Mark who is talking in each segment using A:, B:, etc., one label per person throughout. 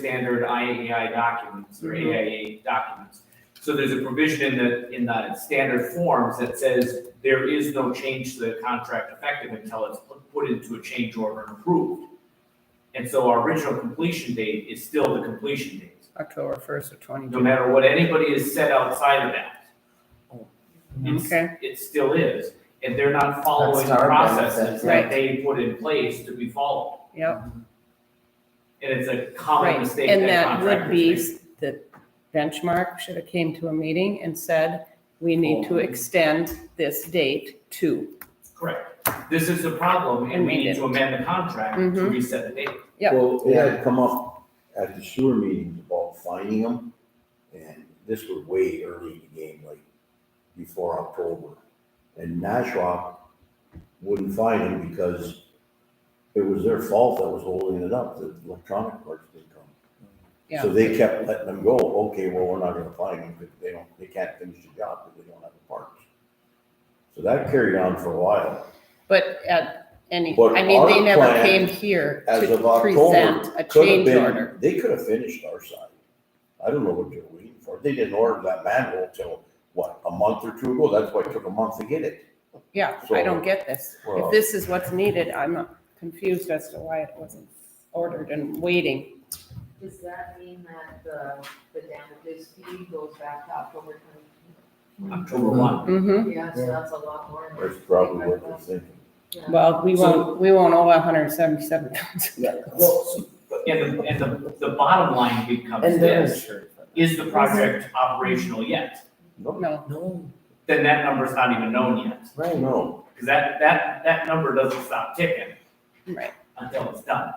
A: standard IAEI documents
B: Mm-hmm.
A: or AIA documents. So there's a provision in the, in the standard forms that says there is no change to the contract effective until it's pu- put into a change order and approved. And so our original completion date is still the completion date,
C: October first of twenty.
A: no matter what anybody has said outside of that. It's-
C: Okay,
A: It still is, and they're not following the
B: Mm-hmm. That's our benefit,
A: processes
C: right.
A: that they put in place to be followed.
C: yep,
A: And it's a common
C: right.
A: mistake
C: And
A: that
C: that would
A: contractors
C: be,
A: make.
C: s- the benchmark should have came to a meeting and said, we need to extend this date to.
A: Correct. This is the problem, and
C: And
A: we
C: we
A: need to
C: didn't.
A: amend the contract to
C: Mhm.
A: reset the date.
C: Yep.
D: Well, it had come up at the sewer meetings about finding them, and this was way early in the game, like before October. And Nashua wouldn't find them because it was their fault that was holding it up, the electronic parts didn't come.
C: Yeah.
D: So they kept letting them go, okay, well, we're not gonna find them, because they don't, they can't finish the job, because they don't have the parts. So that carried on for a while.
C: But at any,
D: But
C: I mean, they
D: our
C: never came
D: plan,
C: here
D: as
C: to
D: of October,
C: present a
D: could have
C: change order.
D: been, they could have finished our side. I don't know what they're waiting for. They didn't order that manhole till, what, a month or two ago? That's why it took a month to get it.
C: Yeah, I
D: So-
C: don't get this.
D: Well-
C: If this is what's needed, I'm confused as to why it wasn't ordered and waiting.
E: Does that mean that the, the damages fee goes back to October twenty?
A: October one.
C: Mm-hmm.
E: Yeah, so that's a lot more.
D: That's probably what they're thinking.
E: Yeah.
C: Well, we
A: So-
C: won't, we won't owe hundred and seventy-seven thousand.
B: Yeah.
A: Well, and the, and the, the bottom line becomes
B: And they're
A: this,
B: insured for that.
A: is the project operational yet?
D: No,
C: No,
B: No,
A: Then that number's not even known yet,
B: right,
D: no,
A: because that, that, that number doesn't stop ticking
C: right,
A: until it's done.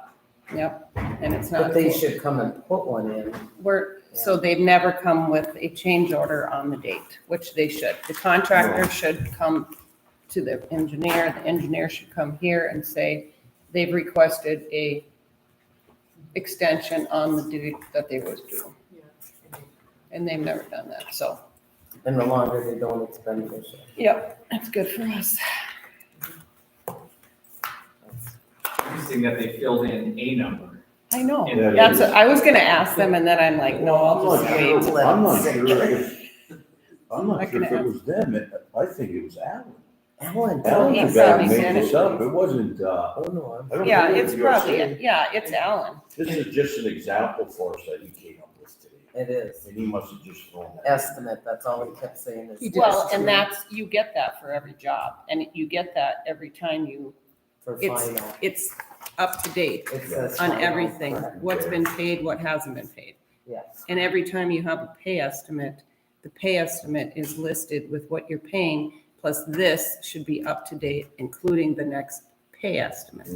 C: yep, and it's
B: but
C: not,
B: they should come and put one in.
C: we're, so they've never come with a change order on the date, which they should. The contractor should come to the engineer, the engineer should come here and say, they've requested a extension on the date that they was due, and they've never done that, so.
B: And the longer they don't, it's beneficial.
C: Yep, that's good for us.
A: Interesting that they filled in a number.
C: I know,
A: Yeah,
D: it
C: Oh. that's,
D: is.
C: what- I was gonna ask them, and then I'm like, no,
D: I'm
C: I'll
D: not
C: just
D: sure,
C: wait.
B: wait.
D: I'm not sure if, I'm
C: I
D: not sure if
C: can
D: it was them. It- I think it was Alan.
B: Alan, tell
D: Alan
B: me
C: yeah,
D: the guy who
B: something.
D: made this up. It wasn't, uh,
B: Oh, no,
D: I don't
C: Yeah,
D: think it
C: it's
D: was USA.
C: probably, yeah, it's Alan.
D: This is just an example for us that he came up with today,
B: I'm- it is.
D: and he must have just thrown that.
B: Estimate, that's all he kept saying is.
C: Well, and that's, you get that for every job, and you get that every time you,
B: For
C: it's-
B: final.
C: it's up to date
B: It says
C: on
B: final,
C: everything,
B: correct,
C: what's been paid, what hasn't been paid.
B: Yes.
C: And every time you have a pay estimate, the pay estimate is listed with what you're paying, plus this should be up to date, including the next pay estimate.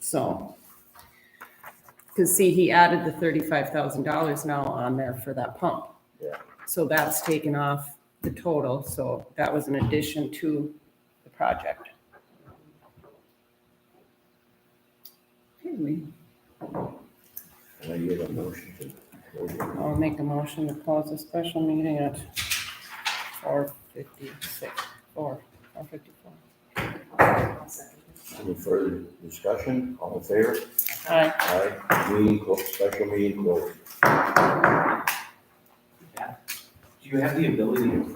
C: So. Cause see, he added the thirty-five thousand dollars now on there for that pump.
D: Yeah.
C: So that's taken off the total, so that was an addition to the project. Okay, we-
D: Can I get a motion to close it?
C: I'll make a motion to close the special meeting at four fifty-six, four, four fifty-four.
D: Any further discussion, all in favor?
C: Aye.
D: Aye, meeting, clo- special meeting closed.
A: Do you have the ability to print